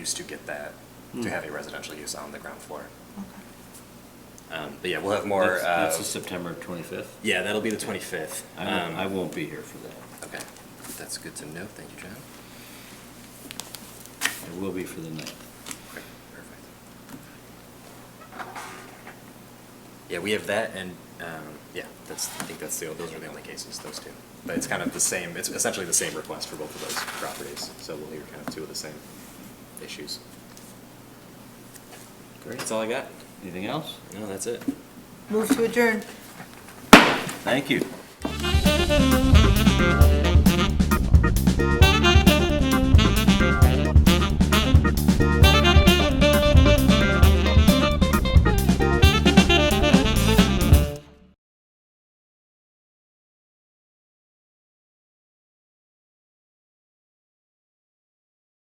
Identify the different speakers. Speaker 1: used to get that, to
Speaker 2: Hmm.
Speaker 1: have a residential use on the ground floor.
Speaker 3: Okay.
Speaker 1: Um, But yeah, we'll have more.
Speaker 2: That's- That's
Speaker 1: uh,
Speaker 2: the September 25th.
Speaker 1: Yeah, that'll be the 25th.
Speaker 2: I won't-
Speaker 1: Um,
Speaker 2: I won't be here for that.
Speaker 1: Okay, that's good to know, thank you, John.
Speaker 2: I will be for the 9th.
Speaker 1: Okay, Perfect. Yeah, we have that and, um, yeah, that's, I think that's the, those are the only cases, those two. But it's kind of the same, it's essentially the same request for both of those properties, so we'll hear kind of two of the same issues. That's all I got.
Speaker 2: Anything else?
Speaker 1: No, that's it.
Speaker 3: Move to adjourn.
Speaker 2: Thank you.